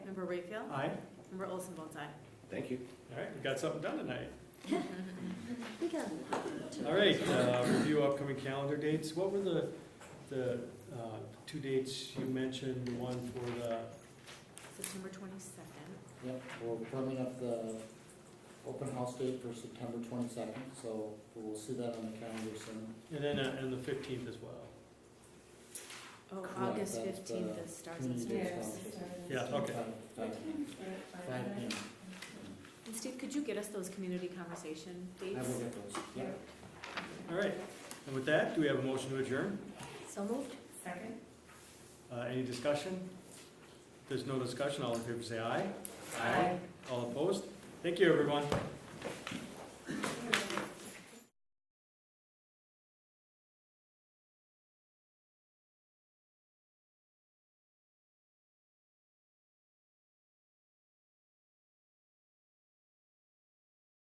Member Rayfield? Aye. Member Olson votes aye. Thank you. All right, we got something done tonight. We got a lot. to- All right, uh, review upcoming calendar dates. What were the, the uh, two dates you mentioned, the one for the, September twenty-second. Yep, well, we're coming up the open house date for September twenty-second, so we'll see that on the calendar soon. and then, uh, and the fifteenth as well? Oh, Correct, August that's the fifteenth is Stars and community Stripes. day. Yeah, okay. Five- Five five P M. And Steve, could you get us those community conversation dates? I will get those, yeah. All right, and with that, do we have a motion to adjourn? So moved. Second? Uh, Any discussion? If there's no discussion, all in favor say aye. Aye. All opposed? Thank you, everyone.